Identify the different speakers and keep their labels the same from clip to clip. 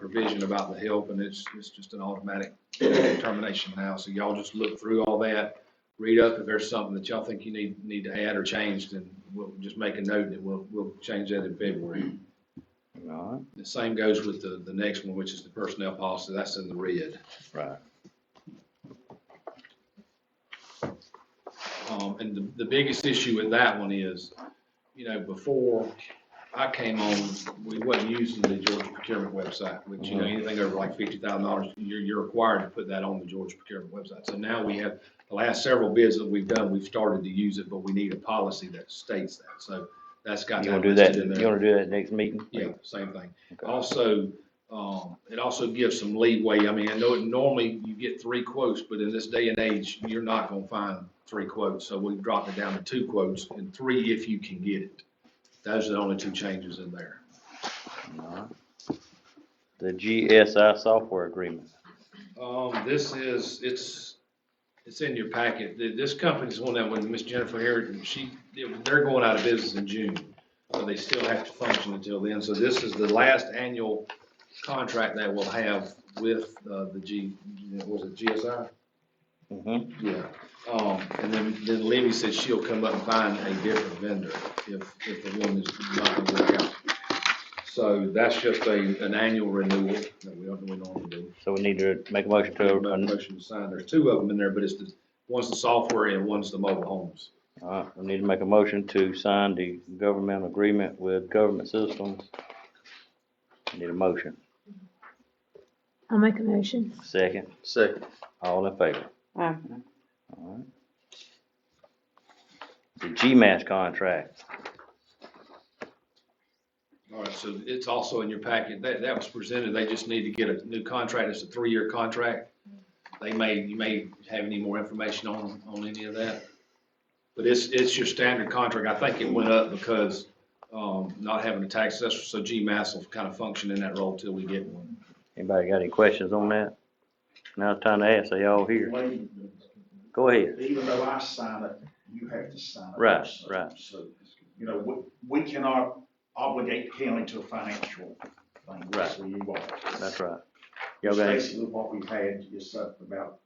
Speaker 1: provision about the help, and it's, it's just an automatic termination now. So y'all just look through all that, read up if there's something that y'all think you need, need to add or change, then we'll just make a note and we'll, we'll change that in February.
Speaker 2: All
Speaker 1: The same goes with the, the next one, which is the personnel policy, that's in the red.
Speaker 2: right, right.
Speaker 1: Um, and the, the biggest issue with that one is, you know, before I came on, we wasn't using the Georgia procurement website, which, you know,
Speaker 2: Mm-hmm.
Speaker 1: anything over like fifty thousand dollars, you're, you're required to put that on the Georgia procurement website. So now we have, the last several bids that we've done, we've started to use it, but we need a policy that states that, so that's got.
Speaker 2: You wanna do that,
Speaker 1: listed in
Speaker 2: you
Speaker 1: there.
Speaker 2: wanna do that next meeting?
Speaker 1: Yeah, same thing.
Speaker 2: Okay.
Speaker 1: Also, um, it also gives some leeway. I mean, I know it- normally you get three quotes, but in this day and age, you're not gonna find three quotes. So we've dropped it down to two quotes and three if you can get it. Those are the only two changes in there.
Speaker 2: All right. The GSI software agreement,
Speaker 1: Um, this is, it's, it's in your packet. Th- This company's one that when Miss Jennifer Harrington, she, they're going out of business in June. So they still have to function until then. So this is the last annual contract that we'll have with, uh, the G, was it GSI?
Speaker 2: mm-hmm,
Speaker 1: Yeah. Um, and then, then Libby said she'll come up and find a different vendor if, if the one is not gonna work out. So that's just a, an annual renewal that we don't, we normally do.
Speaker 2: so we need to make a motion
Speaker 1: Make a
Speaker 2: to, all
Speaker 1: motion to sign. There's two of them in there, but it's the, one's the software and one's the mobile homes.
Speaker 2: right, uh, we need to make a motion to sign the government agreement with government systems. Need a motion,
Speaker 3: I'll make a motion.
Speaker 2: second,
Speaker 4: Second.
Speaker 2: all in favor?
Speaker 5: Aye.
Speaker 2: All right. The GMAS contract,
Speaker 1: All right, so it's also in your packet. That, that was presented. They just need to get a new contract. It's a three-year contract. They may, you may have any more information on, on any of that. But it's, it's your standard contract. I think it went up because, um, not having a tax assessor, so GMAS will kind of function in that role till we get one.
Speaker 2: anybody got any questions on that? Now it's time to ask, are y'all here?
Speaker 6: Wait,
Speaker 2: Go ahead,
Speaker 6: Even though I sign it, you have to sign it.
Speaker 2: Right,
Speaker 6: also.
Speaker 2: right.
Speaker 6: So, you know, we, we cannot obligate Kelly to a financial thing.
Speaker 2: Right.
Speaker 6: So you are.
Speaker 2: that's right. Y'all
Speaker 6: It's
Speaker 2: got any-
Speaker 6: Basically, what we've had is up about,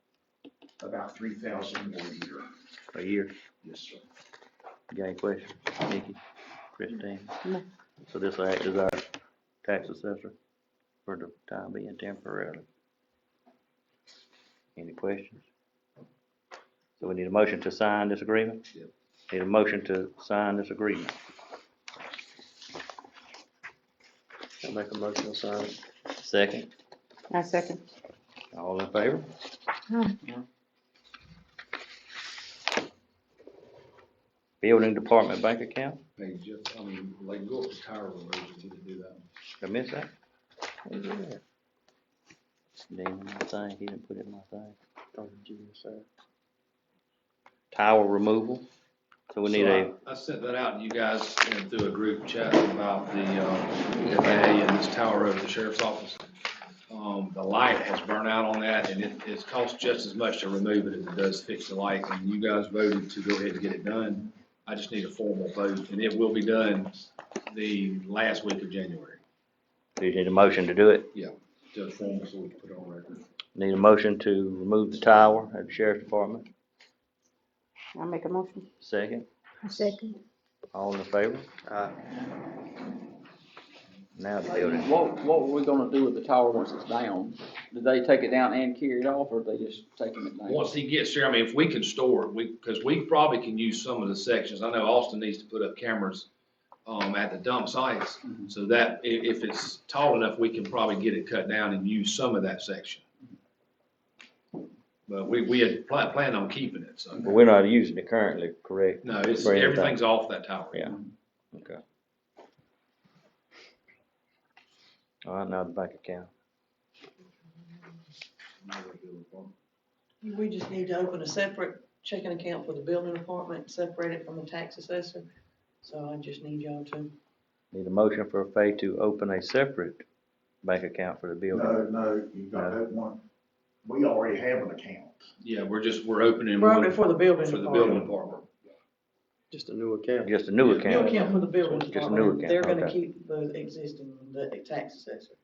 Speaker 6: about three thousand more a year.
Speaker 2: a year?
Speaker 6: Yes, sir.
Speaker 2: You Got any questions, Nikki, Christine?
Speaker 5: No.
Speaker 2: So this will act as our tax assessor for the time being temporarily. Any questions? So we need a motion to sign this agreement?
Speaker 1: Yep.
Speaker 2: Need a motion to sign this agreement.
Speaker 4: I'll make a motion to sign.
Speaker 2: Second,
Speaker 5: I second.
Speaker 2: all in favor?
Speaker 3: Aye.
Speaker 2: Building Department Bank Account,
Speaker 1: Hey, Jeff, I mean, like, go up to Tyra Road, you need to do that.
Speaker 2: did I miss that? Where's it at? Damn, my thing, he didn't put it in my thing. Tower removal, so we need
Speaker 1: So
Speaker 2: a.
Speaker 1: I I sent that out, to you guys, you know, through a group chat about the, um, FAA and this tower over the sheriff's office. Um, the light has burnt out on that, and it, it's cost just as much to remove it as it does fix the light, and you guys voted to go ahead and get it done. I just need a formal vote, and it will be done the last week of January,
Speaker 2: Do you need a motion to do it?
Speaker 1: just formal, so we can put it on record.
Speaker 2: Need a motion to remove the tower at the sheriff's department?
Speaker 5: I make a motion.
Speaker 2: Second,
Speaker 3: I second.
Speaker 2: all in favor?
Speaker 4: Aye.
Speaker 2: Now the building.
Speaker 7: What, what were we gonna do with the tower once it's down? Did they take it down and carry it off, or they just taking it down?
Speaker 1: Once he gets there, I mean, if we can store it, we, because we probably can use some of the sections. I know Austin needs to put up cameras um, at the dump sites.
Speaker 8: Mm-hmm.
Speaker 7: Mhm.
Speaker 1: So that, i- if it's tall enough, we can probably get it cut down and use some of that section.
Speaker 8: Mm-hmm.
Speaker 1: But we, we had pla- planned on keeping it, so.
Speaker 2: But we're not using it currently, correct?
Speaker 1: No, it's,
Speaker 2: For everything.
Speaker 1: everything's off that tower.
Speaker 2: Yeah. Okay. All right, now the bank account.
Speaker 8: We just need to open a separate checking account for the building department, separate it from the tax assessor. So I just need y'all to,
Speaker 2: Need a motion for Fay to open a separate bank account for the building.
Speaker 6: No, no, you got that one. We already have an account.
Speaker 1: Yeah, we're just, we're opening
Speaker 8: We're
Speaker 1: one
Speaker 8: opening for the building
Speaker 1: for the building
Speaker 8: department.
Speaker 1: department.
Speaker 4: Just a new account.
Speaker 2: Just a new
Speaker 1: Yeah,
Speaker 8: New
Speaker 2: account.
Speaker 8: account for the building
Speaker 2: Just a new
Speaker 8: department. They're
Speaker 2: account,
Speaker 8: gonna
Speaker 2: okay.
Speaker 8: keep the existing, the tax assessor.